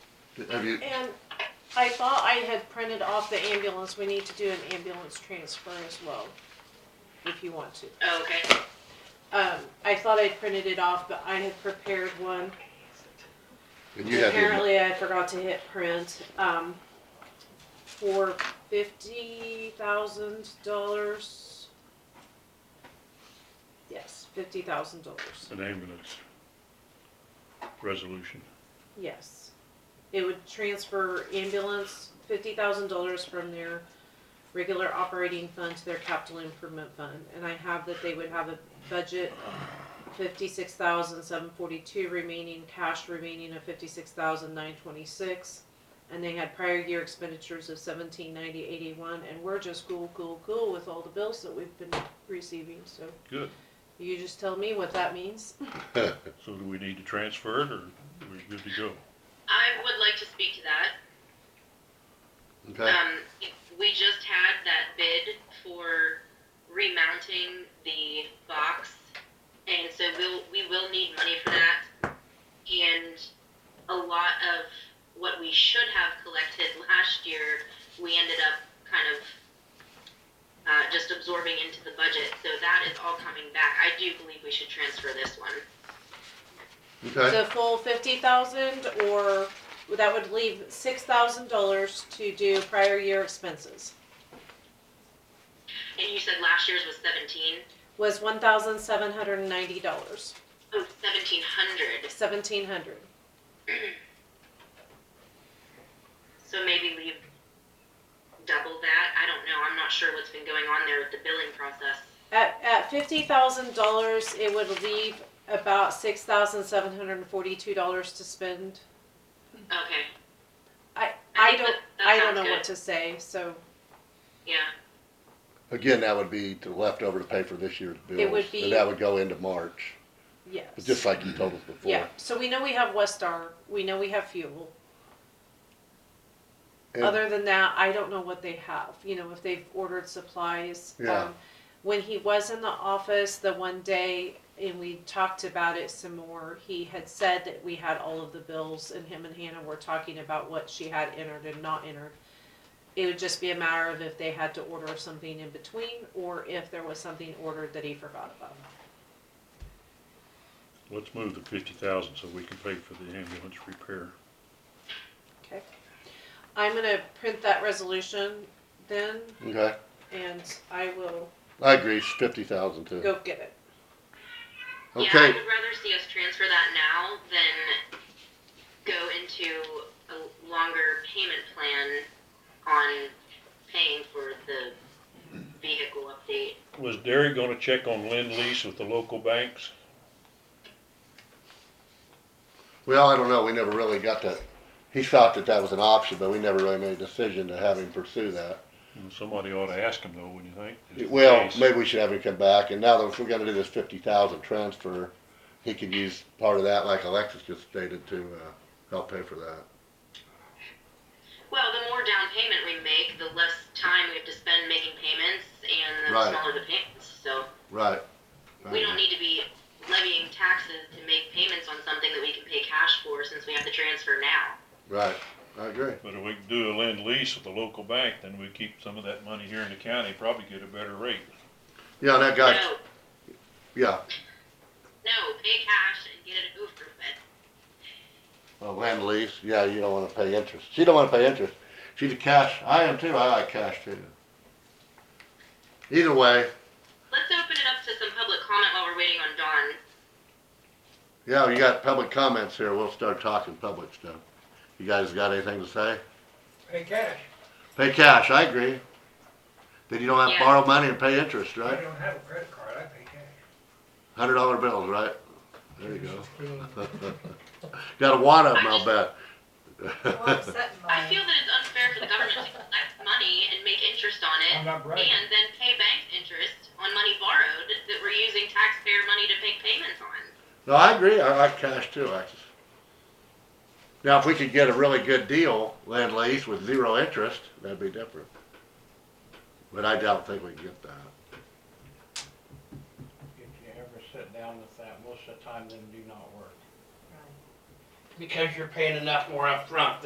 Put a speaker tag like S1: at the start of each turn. S1: Have you,
S2: And I thought I had printed off the ambulance, we need to do an ambulance transfer as well, if you want to.
S3: Oh, okay.
S2: Um, I thought I printed it off, but I had prepared one.
S1: and you have, your-
S2: Apparently I forgot to hit print, um, for fifty thousand dollars. Yes, fifty thousand dollars,
S4: an ambulance resolution.
S2: yes. It would transfer ambulance fifty thousand dollars from their regular operating fund to their capital improvement fund. And I have that they would have a budget fifty-six thousand seven forty-two remaining, cash remaining of fifty-six thousand nine twenty-six. And they had prior year expenditures of seventeen ninety eighty-one, and we're just cool, cool, cool with all the bills that we've been receiving, so
S4: Good.
S2: you just tell me what that means.
S4: So do we need to transfer it or we're good to go?
S3: I would like to speak to that.
S1: okay,
S3: Um, we just had that bid for remounting the box, and so we'll, we will need money for that. And a lot of what we should have collected last year, we ended up kind of, uh, just absorbing into the budget, so that is all coming back. I do believe we should transfer this one.
S1: okay,
S2: The full fifty thousand, or that would leave six thousand dollars to do prior year expenses,
S3: And you said last year's was seventeen?
S2: was one thousand seven hundred and ninety dollars,
S3: Oh, seventeen hundred.
S2: seventeen hundred.
S3: So maybe leave double that. I don't know. I'm not sure what's been going on there with the billing process.
S2: At, at fifty thousand dollars, it would leave about six thousand seven hundred and forty-two dollars to spend.
S3: Okay.
S2: I,
S3: I
S2: I
S3: think
S2: don't,
S3: that- that
S2: I don't
S3: sounds
S2: know what
S3: good.
S2: to say, so
S3: Yeah.
S1: again, that would be to leftover to pay for this year's bills.
S2: would be-
S1: And that would go into March,
S2: yes.
S1: just like you told us before.
S2: Yeah, so we know we have Westar, we know we have fuel.
S1: And-
S2: Other than that, I don't know what they have, you know, if they've ordered supplies.
S1: Yeah.
S2: Um, When he was in the office the one day and we talked about it some more, he had said that we had all of the bills and him and Hannah were talking about what she had entered and not entered. It would just be a matter of if they had to order something in between or if there was something ordered that he forgot about.
S4: Let's move the fifty thousand so we can pay for the ambulance repair.
S2: Okay. I'm gonna print that resolution then
S1: Okay,
S2: and I will
S1: I agree, it's fifty thousand too.
S2: go get it.
S3: Yeah, I
S1: Okay,
S3: would rather see us transfer that now than go into a longer payment plan on paying for the vehicle update.
S4: Was Derry gonna check on lend lease with the local banks?
S1: well, I don't know, we never really got to, he thought that that was an option, but we never really made a decision to have him pursue that.
S4: And Somebody ought to ask them though, wouldn't you think? Just in
S1: Well,
S4: case.
S1: maybe we should have him come back, and now that if we're gonna do this fifty thousand transfer, he could use part of that, like Alexis just stated, to, uh, help pay for that.
S3: Well, the more down payment we make, the less time we have to spend making payments and the
S1: Right.
S3: smaller the payments. So
S1: Right.
S3: we don't need to be levying taxes to make payments on something that we can pay cash for since we have the transfer now.
S1: Right, I agree.
S4: But if we can do a lend lease with the local bank, then we keep some of that money here in the county, probably get a better rate.
S1: Yeah, that guy,
S3: No,
S1: yeah,
S3: no, pay cash and get it over with.
S1: well, land lease, yeah, you don't wanna pay interest. She don't wanna pay interest. She's a cash, I am too, I like cash too. Either way,
S3: Let's open it up to some public comment while we're waiting on Dawn.
S1: yeah, you got public comments here, we'll start talking public stuff. You guys got anything to say?
S5: Hey, Cash,
S1: Pay cash, I agree. Then you don't have to
S3: Yeah.
S1: borrow money and pay interest,
S5: I
S1: right?
S5: don't have a credit card, I pay cash.
S1: Hundred dollar bills, right? There you go. Got a wad of them, I'll bet.
S3: I feel that it's unfair for the government to collect money and make interest on it
S5: I'm not bragging.
S3: and then pay banks interest on money borrowed that we're using taxpayer money to make payments on.
S1: No, I agree. I like cash too, Alexis. Now, if we could get a really good deal, land lease with zero interest, that'd be different. But I don't think we can get that.
S6: If you ever sit down with that, most of the time them do not work.
S7: because you're paying enough more upfront